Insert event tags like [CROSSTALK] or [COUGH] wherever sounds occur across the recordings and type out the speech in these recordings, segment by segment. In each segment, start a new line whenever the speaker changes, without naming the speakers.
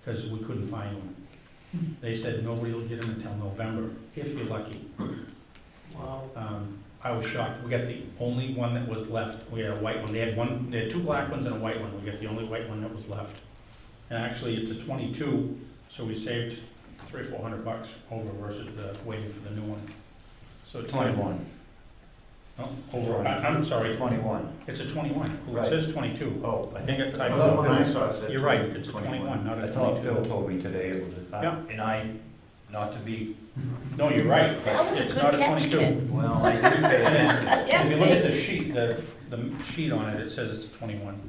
because we couldn't find one. They said nobody will get them until November, if you're lucky.
Wow.
Um, I was shocked, we got the only one that was left, we had a white one, they had one, they had two black ones and a white one, we got the only white one that was left. And actually, it's a twenty-two, so we saved three, or four hundred bucks over versus the waiting for the new one. So it's like,
Twenty-one.
no, over, I, I'm sorry,
Twenty-one.
it's a twenty-one, Well,
Right.
it says twenty-two.
Oh,
I think it-
I
I
thought
thought-
when I
saw it.
You're right, it's a twenty-one, not
I
a
thought Phil
twenty-two.
told me today it was, a- uh,
Yeah.
and I, not to be,
No, you're right,
That was a
it's
good
not a
catch,
twenty-two.
kid.
well, I didn't pay attention.
Yeah,
If you look at the sheet, the, the sheet on it, it says it's a twenty-one.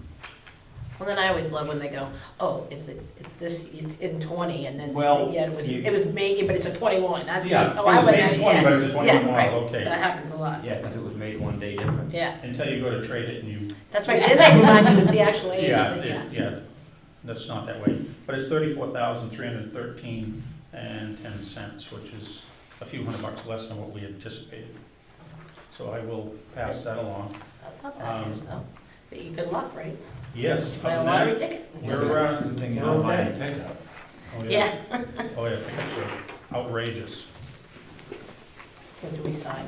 Well, then I always love when they go, oh, it's, a- it's this, it's in twenty, and then,
Well,
yeah, it was,
you-
it was made, but it's a twenty-one, that's,
Yeah,
that's how
it was
I would,
made in 20, but it's a
yeah,
21
yeah,
model,
right.
okay.
That happens a lot,
Yeah, because it was made one day different.
yeah,
Until you go to trade it and you,
that's right, then I can argue it's the actual age,
yeah,
but
it-
yeah.
yeah, that's not that way. But it's thirty-four thousand, three hundred and thirteen and ten cents, which is a few hundred bucks less than what we anticipated. So I will pass that along.
That's not bad
Um,
news, though, but you, good luck, right?
Yes,
Buy a
other than
lottery
that,
ticket?
we're, uh,
Good thing you
we're
don't buy
okay.
a pickup.
Oh,
Yeah,
Oh, yeah, pickups are outrageous.
so do we sign?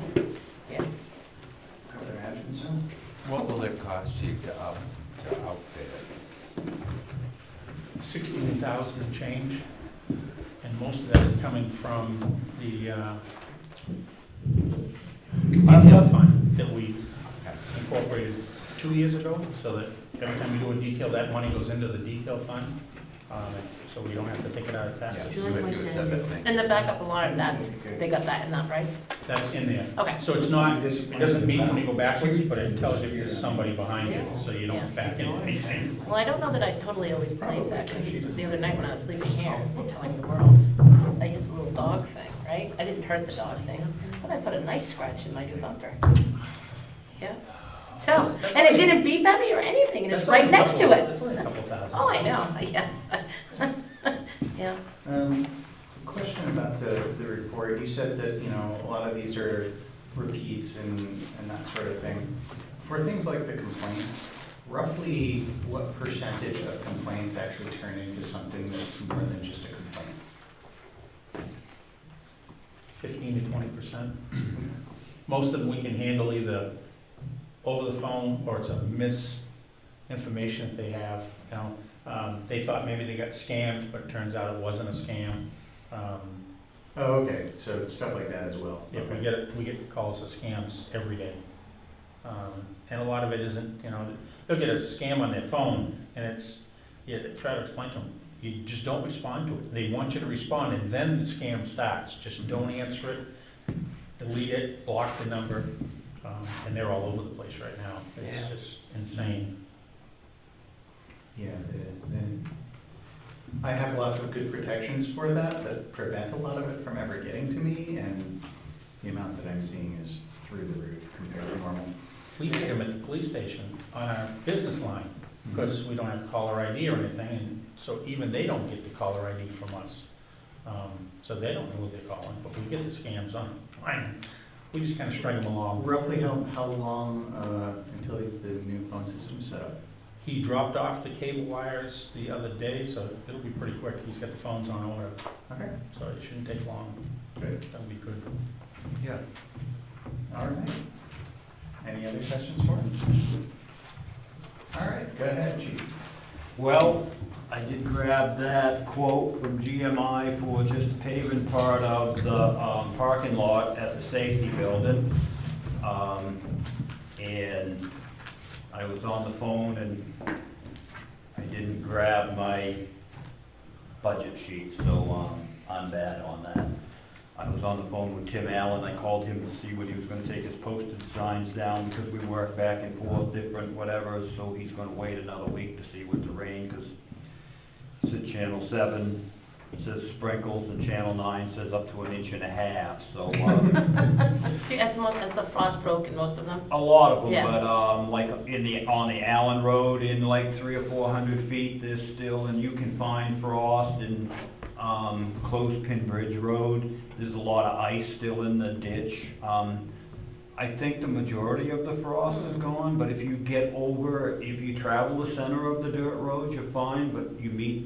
What will it cost you to up, to outfit it?
Sixteen thousand and change, and most of that is coming from the, uh, detail fund that we incorporated two years ago, so that every time we do a detail, that money goes into the detail fund, uh, so we don't have to take it out of
Yeah,
taxes.
you would do it separately.
And the backup alarm, that's, they got that in that price?
That's in there.
Okay,
So it's not, it doesn't mean when you go backwards, but it tells you if there's somebody behind you, so you don't back into anything.
well, I don't know that I totally always played that, because the other night when I was leaving here, telling the world, I hit the little dog thing, right? I didn't hurt the dog thing, but I put a nice scratch in my new bumper. Yeah, so, and it didn't beep at me or anything, and it's
That's only
right
a
next to
couple-
it.
That's only a couple thousand.
Oh, I know, [LAUGHS] I guess. Yeah,
Um, Question about the, the report. You said that, you know, a lot of these are repeats and, and that sort of thing. For things like the complaints, roughly what percentage of complaints actually turn into something that's more than just a complaint?
fifteen to twenty percent. Most of them we can handle either over the phone, or it's a misinformation that they have, you know. Um, they thought maybe they got scammed, but it turns out it wasn't a scam. Um,
Oh, okay, so it's stuff like that as well.
yeah, we get, we get calls for scams every day. Um, and a lot of it isn't, you know, they'll get a scam on their phone, and it's, yeah, try to explain to them, you just don't respond to it. They want you to respond, and then the scam starts, just don't answer it, delete it, block the number, um, and they're all over the place right now. It's
Yeah.
just insane.
Yeah, the, the, I have lots of good protections for that, that prevent a lot of it from ever getting to me, and the amount that I'm seeing is through the roof compared to normal.
We get them at the police station on our business line, because we don't have caller ID or anything, and so even they don't get the caller ID from us. Um, So they don't know who they're calling, but we get the scams on, line. we just kind of string them along.
Roughly how, how long, uh, until the new phone system's set up?
He dropped off the cable wires the other day, so it'll be pretty quick. He's got the phones on order,
Okay,
so it shouldn't take long.
good,
That'll be good.
Yeah.
all right. Any other questions for him? All right, go ahead, chief.
Well, I did grab that quote from GMI for just the paving part of the um, parking lot at the safety building. Um, And I was on the phone and I didn't grab my budget sheet, so um, I'm bad on that. I was on the phone with Tim Allen, I called him to see what he was gonna take his posted signs down, because we work back and forth, different, whatever, so he's gonna wait another week to see what the rain, because it's at channel seven, it says sprinkles, and channel nine says up to an inch and a half, so, um,
Do you- that's mo- that's the frost broke in most of them.
a lot of them,
Yeah.
but, um, like, in the, on the Allen Road, in like three or four hundred feet, there's still, and you can find frost in, um, Clothespin Bridge Road, there's a lot of ice still in the ditch. Um, I think the majority of the frost is gone, but if you get over, if you travel the center of the dirt road, you're fine, but you meet